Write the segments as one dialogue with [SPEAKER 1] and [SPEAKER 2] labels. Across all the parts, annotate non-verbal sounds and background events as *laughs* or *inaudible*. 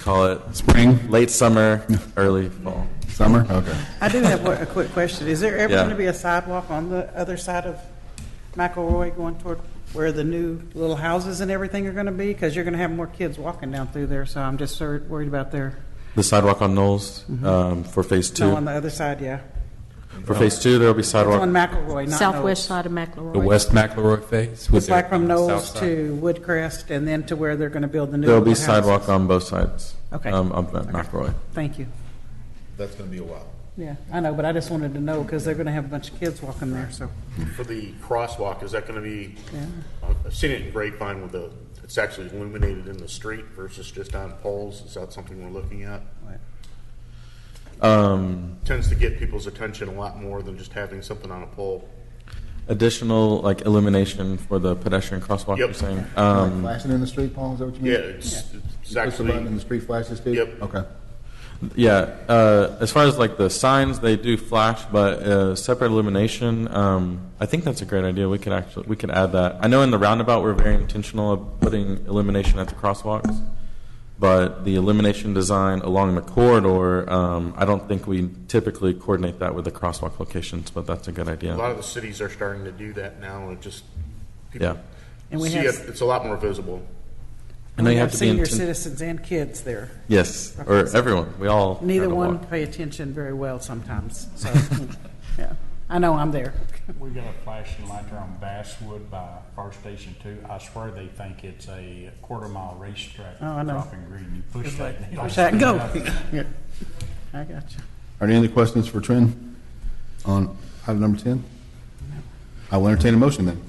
[SPEAKER 1] call it
[SPEAKER 2] Spring,
[SPEAKER 1] late summer, early fall.
[SPEAKER 2] summer, okay.
[SPEAKER 3] I do have one- a quick question. Is there ever
[SPEAKER 1] Yeah.
[SPEAKER 3] going to be a sidewalk on the other side of McElroy going toward where the new little houses and everything are going to be? Because you're going to have more kids walking down through there, so I'm just sor- worried about their,
[SPEAKER 1] The sidewalk on Knowles um, for phase
[SPEAKER 3] Mm-hmm. no, on
[SPEAKER 1] two.
[SPEAKER 3] the other side, yeah.
[SPEAKER 1] For phase two, there'll be
[SPEAKER 3] It's on
[SPEAKER 1] sidewalk,
[SPEAKER 3] McElroy, not
[SPEAKER 4] Southwest
[SPEAKER 3] Knowles.
[SPEAKER 4] side of
[SPEAKER 5] The
[SPEAKER 4] McElroy.
[SPEAKER 5] West McElroy phase? with
[SPEAKER 3] It's like
[SPEAKER 5] their-
[SPEAKER 3] from
[SPEAKER 5] south
[SPEAKER 3] Knowles
[SPEAKER 5] side.
[SPEAKER 3] to Woodcrest and then to where they're going to build the new
[SPEAKER 1] there'll
[SPEAKER 3] little
[SPEAKER 1] be
[SPEAKER 3] houses.
[SPEAKER 1] sidewalk on both sides.
[SPEAKER 3] Okay.
[SPEAKER 1] um, Of McElroy.
[SPEAKER 3] Thank you.
[SPEAKER 6] That's going to be a while.
[SPEAKER 3] Yeah, I know, but I just wanted to know because they're going to have a bunch of kids walking there, so,
[SPEAKER 7] For the crosswalk, is that going to be,
[SPEAKER 3] yeah.
[SPEAKER 7] I've seen it in Grapevine with the, it's actually illuminated in the street versus just on poles. Is that something we're looking at?
[SPEAKER 1] Um,
[SPEAKER 7] Tends to get people's attention a lot more than just having something on a pole.
[SPEAKER 1] Additional, like illumination for the pedestrian crosswalk,
[SPEAKER 7] Yep.
[SPEAKER 1] you're saying?
[SPEAKER 2] Like
[SPEAKER 1] Um,
[SPEAKER 2] Flashing in the street, Paul, is that what you mean?
[SPEAKER 7] Yeah, it's it's
[SPEAKER 2] You Push the button and
[SPEAKER 7] actually,
[SPEAKER 2] the street flashes too?
[SPEAKER 7] Yep.
[SPEAKER 2] Okay.
[SPEAKER 1] Yeah, uh, as far as like the signs, they do flash, but uh, separate illumination. Um, I think that's a great idea. We could actually we could add that. I know in the roundabout we're very intentional of putting illumination at the crosswalks, but the illumination design along the corridor, um, I don't think we typically coordinate that with the crosswalk locations. But that's a good
[SPEAKER 7] a
[SPEAKER 1] idea.
[SPEAKER 7] lot of the cities are starting to do that now and it just.
[SPEAKER 1] yeah,
[SPEAKER 7] people
[SPEAKER 3] And we
[SPEAKER 7] See
[SPEAKER 3] have-
[SPEAKER 7] it, it's a lot more visible.
[SPEAKER 1] I know
[SPEAKER 3] We
[SPEAKER 1] you have to be
[SPEAKER 3] Senior
[SPEAKER 1] inten-
[SPEAKER 3] citizens and kids there.
[SPEAKER 1] Yes, or everyone. We all
[SPEAKER 3] Neither
[SPEAKER 1] try to
[SPEAKER 3] one
[SPEAKER 1] walk.
[SPEAKER 3] pay attention very well sometimes, so, yeah. I know I'm there.
[SPEAKER 8] We got a flashing light there on Basswood by Fire Station Two. I swear they think it's a quarter mile racetrack.
[SPEAKER 3] Oh, I know.
[SPEAKER 8] Dropping green, you push that. and it'll
[SPEAKER 3] Push that and go.
[SPEAKER 8] speed up.
[SPEAKER 3] Yeah. I got you.
[SPEAKER 2] Are there any other questions for Trent on item number 10? I will entertain a motion then.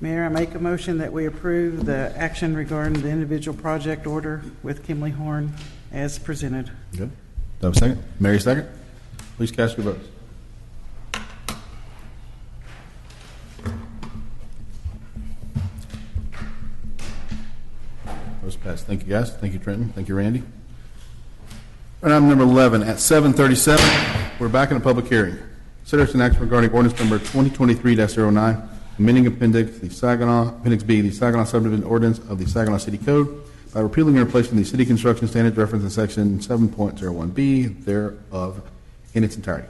[SPEAKER 3] Mayor, I make a motion that we approve the action regarding the individual project order with Kimley Horn as presented.
[SPEAKER 2] Good. Do I have a second? Mary, second? Please cast your votes. Those passed. Thank you, guys. Thank you, Trenton. Thank you, Randy. All right, Item number 11, at 7:37, we're back in a public hearing. Consideration action regarding ordinance number 2023-09, amending appendix, the Saginaw, appendix B, the Saginaw subdivision ordinance of the Saginaw City Code by repealing and replacing the city construction standards referenced in section 7.01B thereof in its entirety.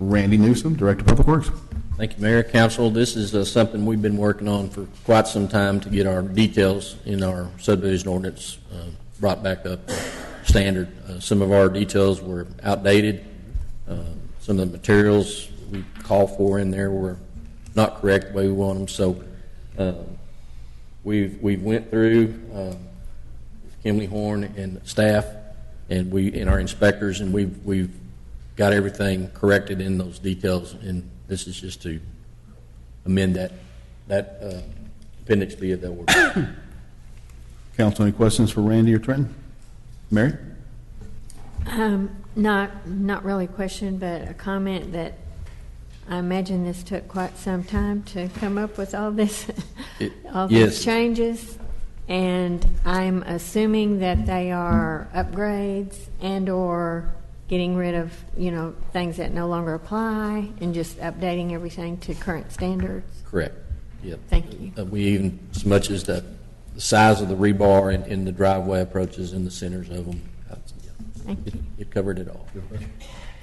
[SPEAKER 2] Randy Newsom, Director of Public Works.
[SPEAKER 9] Thank you, Mayor, Council. This is uh, something we've been working on for quite some time to get our details in our subdivision ordinance uh, brought back up to standard. Uh, Some of our details were outdated. Uh, Some of the materials we call for in there were not correct the way we want them. So uh, we've, we've went through, uh, Kimley Horn and staff, and we, and our inspectors, and we've, we've got everything corrected in those details, and this is just to amend that, that uh, appendix B of that order.
[SPEAKER 2] Council, any questions for Randy or Trenton? Mary?
[SPEAKER 4] Um, Not, not really a question, but a comment that I imagine this took quite some time to come up with all this,
[SPEAKER 9] It-
[SPEAKER 4] *laughs* all these
[SPEAKER 9] yes.
[SPEAKER 4] changes. And I'm assuming that they are upgrades and/or getting rid of, you know, things that no longer apply and just updating everything to current standards.
[SPEAKER 9] Correct. Yep.
[SPEAKER 4] Thank you.
[SPEAKER 9] Uh, We even, as much as the, the size of the rebar and, and the driveway approaches and the centers of them, uh, yeah,
[SPEAKER 4] Thank
[SPEAKER 9] it-
[SPEAKER 4] you.
[SPEAKER 9] it covered it all.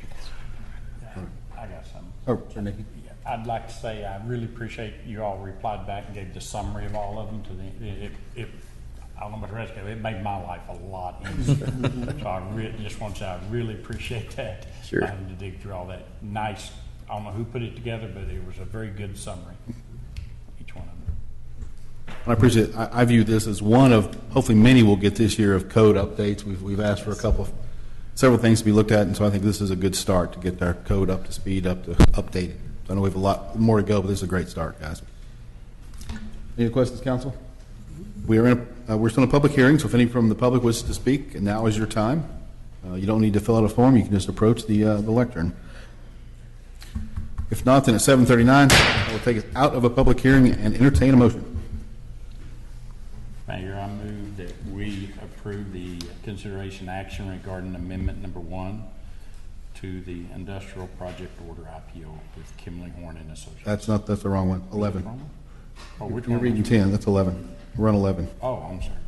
[SPEAKER 3] *laughs*
[SPEAKER 8] I got something.
[SPEAKER 2] Oh, sure, Nikki.
[SPEAKER 8] Yeah, I'd like to say I really appreciate you all replied back and gave the summary of all of them to the, it, it- it, I don't know about the rest of it, it made my life a lot
[SPEAKER 3] *laughs*
[SPEAKER 8] easier. So I re, just want to say I really appreciate that.
[SPEAKER 9] Sure.
[SPEAKER 8] I had to dig through all that nice, I don't know who put it together, but it was a very good summary, each one of them.
[SPEAKER 2] I appreciate, I, I view this as one of, hopefully many we'll get this year of code updates. We've, we've asked for a couple, of several things to be looked at, and so I think this is a good start to get our code up to speed, up to updated. So I know we have a lot more to go, but this is a great start, guys. Any questions, council? We are in, a- uh, we're still in a public hearing, so if any from the public wishes to speak, and now is your time. Uh, you don't need to fill out a form, you can just approach the, uh, the lectern. If not, then at seven thirty-nine, we'll take it out of a public hearing and entertain a motion.
[SPEAKER 8] Mayor, I move that we approve the consideration action regarding amendment number one to the industrial project order IPO with Kimley Horn and Associates.
[SPEAKER 2] That's not, that's the wrong one, 11.
[SPEAKER 8] Oh, which
[SPEAKER 2] You're
[SPEAKER 8] one?
[SPEAKER 2] reading 10, that's 11. Run 11.
[SPEAKER 8] Oh, I'm sorry.